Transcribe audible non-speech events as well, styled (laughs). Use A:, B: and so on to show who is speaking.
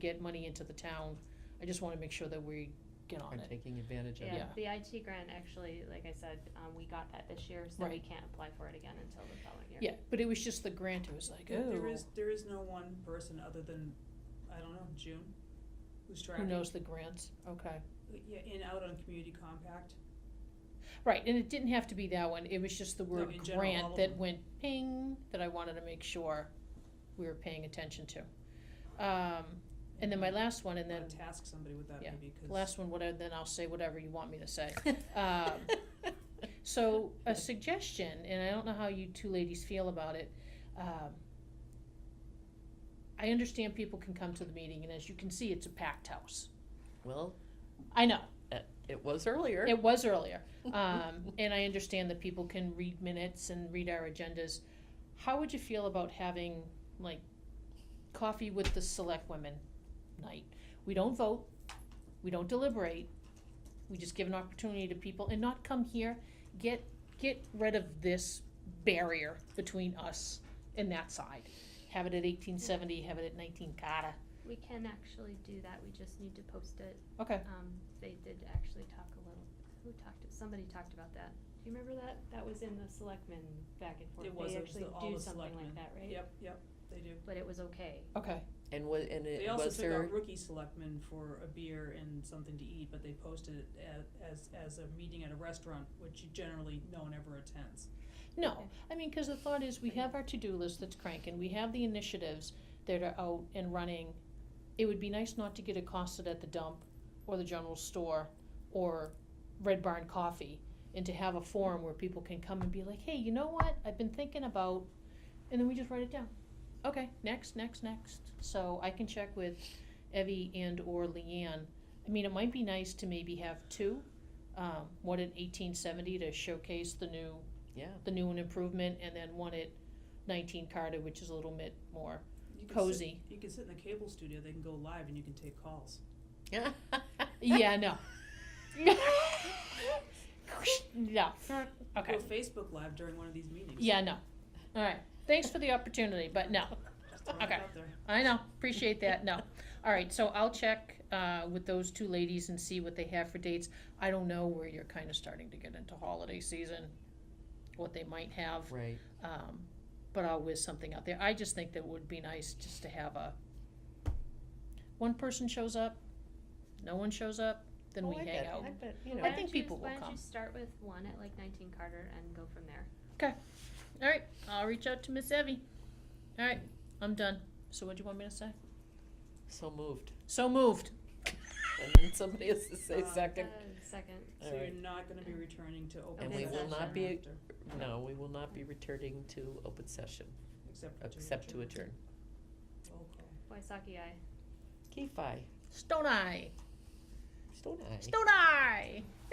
A: get money into the town. I just wanna make sure that we get on
B: Are
A: it.
B: taking advantage of it.
A: Yeah.
C: Yeah, the IT grant actually, like I said, um, we got that this year, so we
A: Right.
C: can't apply for it again until the following year.
A: Yeah, but it was just the grant, it was like,
D: There- There
A: oh,
D: is, there is no one person other than, I don't know, June, who's
A: who
D: tracking.
A: knows the grants, okay.
D: Yeah, in, out on community compact.
A: Right, and it didn't have to be that one, it was just the word
D: in general, all
A: grant
D: of
A: that
D: them.
A: went ping, that I wanted to make sure we were paying attention to. Um, and then my last one, and then
D: Wanna task somebody with that
A: yeah,
D: maybe,
A: the
D: cause.
A: last one, whatever, then I'll say whatever you want me to say.
B: (laughs)
A: Um, So, a suggestion, and I don't know how you two ladies feel about it. um, I understand people can come to the meeting, and as you can see, it's a packed house.
B: Well,
A: I know,
B: it was earlier. (laughs)
A: it was earlier. Um, and I understand that people can read minutes and read our agendas. How would you feel about having, like, coffee with the select women night? We don't vote, we don't deliberate, we just give an opportunity to people and not come here, get, get rid of this barrier between us and that side. Have it at eighteen seventy, have it at nineteen Carter.
C: We can actually do that, we just need to post it.
A: Okay.
C: Um, they did actually talk a little, who talked, somebody talked about that. Do you remember that? That was in the selectmen back and forth.
D: It was,
C: They
D: it was
C: actually
D: the- all
C: do
D: the
C: something
D: selectmen.
C: like that, right?
D: Yep, yep, they do.
C: But it was okay.
A: Okay,
B: And was, and
D: They
B: it
D: also
B: was
D: took
B: (laughs) there,
D: out rookie selectmen for a beer and something to eat, but they posted it a- as, as a meeting at a restaurant, which you generally, no one ever attends.
A: no,
C: Okay.
A: (laughs) I mean, because the thought is, we have our to-do list that's cranking, we have the initiatives that are out and running. It would be nice not to get accosted at the dump, or the general store, or Red Barn Coffee, and to have a forum where people can come and be like, hey, you know what, I've been thinking about, and then we just write it down. Okay, next, next, next, so I can check with Evie and or Leanne. I mean, it might be nice to maybe have two, um, one in eighteen seventy to showcase the new
B: yeah.
A: the new and improvement, and then one at nineteen Carter, which is a little bit more
D: You can sit-
A: cozy.
D: You can sit in the cable studio, they can go live and you can take calls.
B: (laughs)
A: Yeah, no. No, okay,
D: Go Facebook Live during one of these meetings.
A: yeah, no, alright, thanks for the opportunity, but no,
D: Just throwing it
A: okay.
D: out there.
A: I know, appreciate that, no. Alright, so I'll check, uh, with those two ladies and see what they have for dates. I don't know where you're kinda starting to get into holiday season, what they might have.
B: Right.
A: Um, but I'll whiz something out there. I just think that it would be nice just to have a, one person shows up, no one shows up, then
B: Oh,
A: we
B: I
A: hang
B: bet-
A: out.
B: I bet, you
C: Why
B: know,
A: I
C: don't
A: think
C: you-
A: people will
C: Why don't
A: come.
C: you start with one at like nineteen Carter and go from there?
A: All right, I'll reach out to Miss Evie. All right, I'm done. So what do you want me to say?
B: so moved. Oh,
A: So moved.
B: And then somebody has to say
D: Uh,
B: second.
C: Uh, Second,
B: All
D: So you're
B: right.
D: not gonna be returning to open
C: And we will
D: session
C: not
B: be-
D: after,
B: No, we will not be returning to open session,
D: Except. to
B: except to
D: adjourn.
B: adjourn.
D: Roll call.
C: Waisaki, aye.
B: Kefi,
A: Stone Eye.
B: Stone Eye.
A: Stone Eye.